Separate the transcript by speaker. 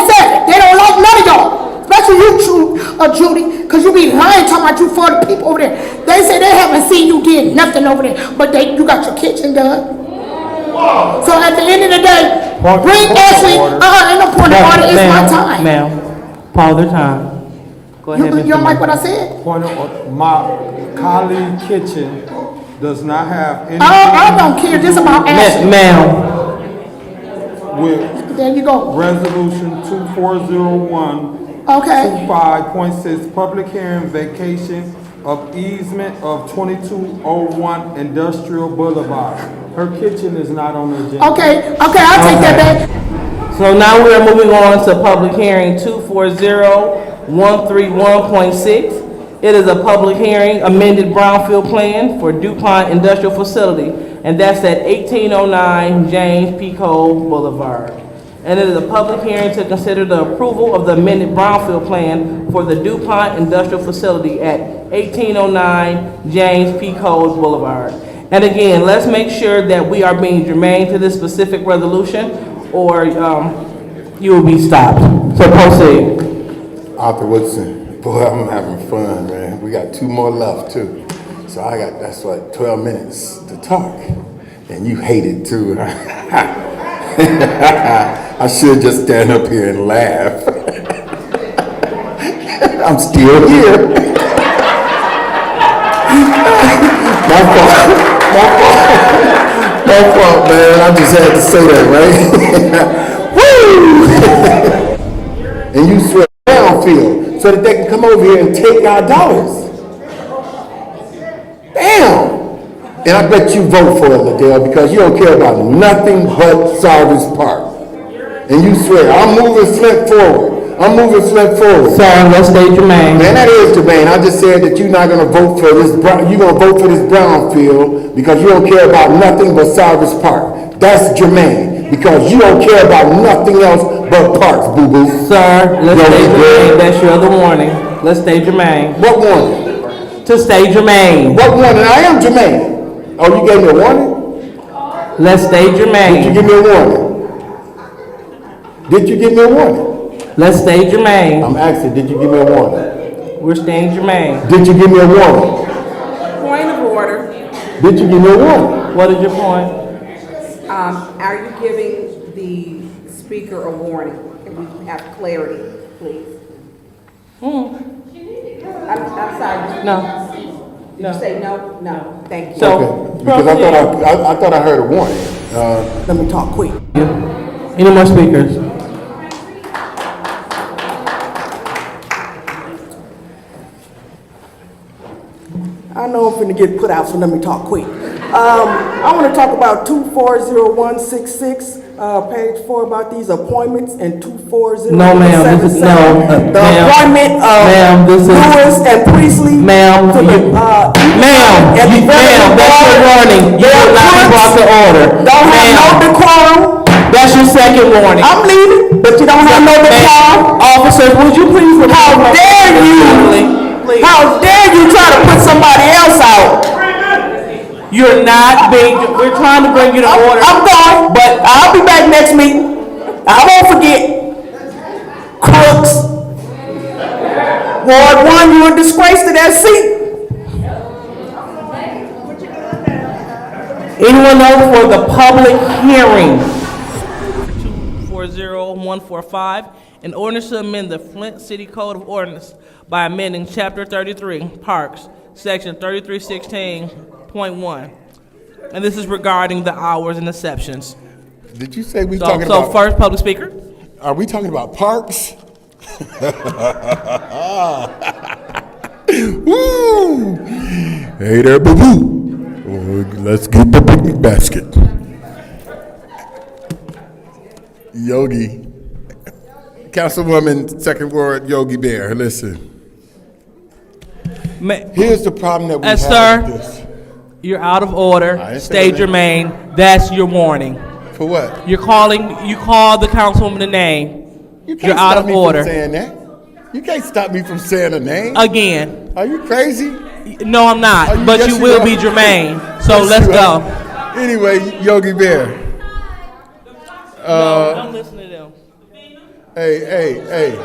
Speaker 1: or uh, Judy, because you be lying talking about you for the people over there. They say they haven't seen you did nothing over there, but they, you got your kitchen done. So at the end of the day,
Speaker 2: Point-
Speaker 1: bring
Speaker 2: point of
Speaker 1: Ashley,
Speaker 2: order.
Speaker 1: uh-uh, ain't no point of order, it's my
Speaker 3: Ma'am,
Speaker 1: time.
Speaker 3: Ma'am, pause the time. Go ahead,
Speaker 1: You,
Speaker 3: Mr.
Speaker 1: you don't like
Speaker 3: Mayor.
Speaker 1: what I said?
Speaker 2: Point of, order. my colleague kitchen does not have anything.
Speaker 1: Uh, I, I don't care, this about
Speaker 3: Ma-
Speaker 1: Ashley.
Speaker 3: Ma'am,
Speaker 2: With
Speaker 1: There you go,
Speaker 2: resolution two four zero one
Speaker 1: okay.
Speaker 2: 25.6, public hearing vacation of easement of 2201 Industrial Boulevard. Her kitchen is not on the agenda.
Speaker 1: Okay, okay, I'll take that back.
Speaker 3: so now we are moving on to public hearing two four zero one three one point six. It is a public hearing, amended brownfield plan for DuPont Industrial Facility, and that's at eighteen oh nine James P. Cole Boulevard. And it is a public hearing to consider the approval of the amended brownfield plan for the DuPont Industrial Facility at eighteen oh nine James P. Cole Boulevard. And again, let's make sure that we are being germane to this specific resolution, or um, you will be stopped. So proceed.
Speaker 4: Arthur Woodson, boy, I'm having fun, man. We got two more left too, so I got that's like 12 minutes to talk, and you hate it too. I should just stand up here and laugh. I'm still here. my fault. My fault. My fault, man. I just had to say that, right? Woo! and you swear downfield so that they can come over here and take our dollars. Damn! And I bet you vote for it, Liddell, because you don't care about nothing but Sarvis Park. And you swear, I'm moving Flint forward. I'm moving Flint forward.
Speaker 3: Sir, let's stay germane.
Speaker 4: Man, that is Jermaine. I just said that you're not gonna vote for this, Brown- you're gonna vote for this brownfield because you don't care about nothing but Cyrus Park. That's Jermaine, because you don't care about nothing else but parks, boo-boo.
Speaker 3: Sir, let's
Speaker 4: Yo,
Speaker 3: stay
Speaker 4: you
Speaker 3: germane,
Speaker 4: good?
Speaker 3: that's your other warning. Let's stay germane.
Speaker 4: What warning?
Speaker 3: To stay germane,
Speaker 4: What warning? I am Jermaine. Oh, you gave me a warning?
Speaker 3: let's stay
Speaker 4: Did you
Speaker 3: germane,
Speaker 4: give me a warning? Did you give me a warning?
Speaker 3: let's stay germane.
Speaker 4: I'm asking, did you give me a warning?
Speaker 3: We're staying germane.
Speaker 4: Did you give me a warning?
Speaker 5: Point of order,
Speaker 4: Did you give me a warning?
Speaker 3: What is your point?
Speaker 5: um, are you giving the speaker a warning? Can we have clarity, please? I'm, I'm sorry,
Speaker 3: Hmm. No.
Speaker 5: did you say no? No, thank you.
Speaker 3: So-
Speaker 4: Okay, Because I thought I, I, I thought I heard a warning. Uh,
Speaker 5: Let me talk quick.
Speaker 3: Any more speakers?
Speaker 6: I know I'm finna get put out, so let me talk quick. Um, I wanna talk about two four zero one six six, uh, page four about these appointments and two four zero
Speaker 3: No,
Speaker 6: one
Speaker 3: ma'am,
Speaker 6: seven
Speaker 3: this is-
Speaker 6: seven.
Speaker 3: no, uh,
Speaker 6: The
Speaker 3: ma'am.
Speaker 6: appointment
Speaker 3: Ma'am,
Speaker 6: of
Speaker 3: this is-
Speaker 6: Lewis and Priestley.
Speaker 3: Ma'am,
Speaker 6: to the,
Speaker 3: you-
Speaker 6: uh,
Speaker 3: Ma'am,
Speaker 6: at the
Speaker 3: you- ma'am, that's your
Speaker 6: Veterans Board.
Speaker 3: warning. You
Speaker 6: Their
Speaker 3: will not be brought to
Speaker 6: clerks
Speaker 3: order.
Speaker 6: Don't have no
Speaker 3: Ma'am,
Speaker 6: decorum.
Speaker 3: That's your second warning.
Speaker 6: I'm leaving, but you don't have no decorum.
Speaker 3: Ma'am, Officers, would you please? remove-
Speaker 6: How dare you? How dare you try to put somebody else out?
Speaker 3: You're not being, we're trying to bring you to order.
Speaker 6: I'm going, but I'll be back next meeting. I won't forget. Crooks. Ward one, you a disgrace to that seat.
Speaker 3: Anyone know for the public hearing? 240145, an ordinance to amend the Flint City Code of Ordinance by amending Chapter 33, Parks, Section 3316.1. And this is regarding the hours and exceptions.
Speaker 4: Did you say we
Speaker 3: So,
Speaker 4: talking
Speaker 3: so
Speaker 4: about?
Speaker 3: first, public speaker?
Speaker 4: are we talking about parks? Woo! Hey there, boo boo. Let's get the picnic basket. Yogi, Councilwoman, Second Ward, Yogi Bear. Listen,
Speaker 3: Ma-
Speaker 4: here's the problem that we
Speaker 3: Uh,
Speaker 4: have.
Speaker 3: sir.
Speaker 4: with this.
Speaker 3: You're out of order.
Speaker 4: I didn't say
Speaker 3: Stay
Speaker 4: that.
Speaker 3: germane. That's your warning.
Speaker 4: For what?
Speaker 3: You're calling, you called the councilwoman a name.
Speaker 4: You can't
Speaker 3: You're
Speaker 4: stop
Speaker 3: out of
Speaker 4: me From
Speaker 3: order. Uh,
Speaker 4: saying that. You can't stop me from saying a name.
Speaker 3: Again.
Speaker 4: Are you crazy?
Speaker 3: No, I'm
Speaker 4: Oh, you-
Speaker 3: not, but
Speaker 4: yes,
Speaker 3: you
Speaker 4: you
Speaker 3: will
Speaker 4: are.
Speaker 3: be germane. So
Speaker 4: Yes,
Speaker 3: let's
Speaker 4: you are.
Speaker 3: go.
Speaker 4: Anyway, Yogi Bear.
Speaker 3: Don't listen to them.
Speaker 4: Hey, hey, hey.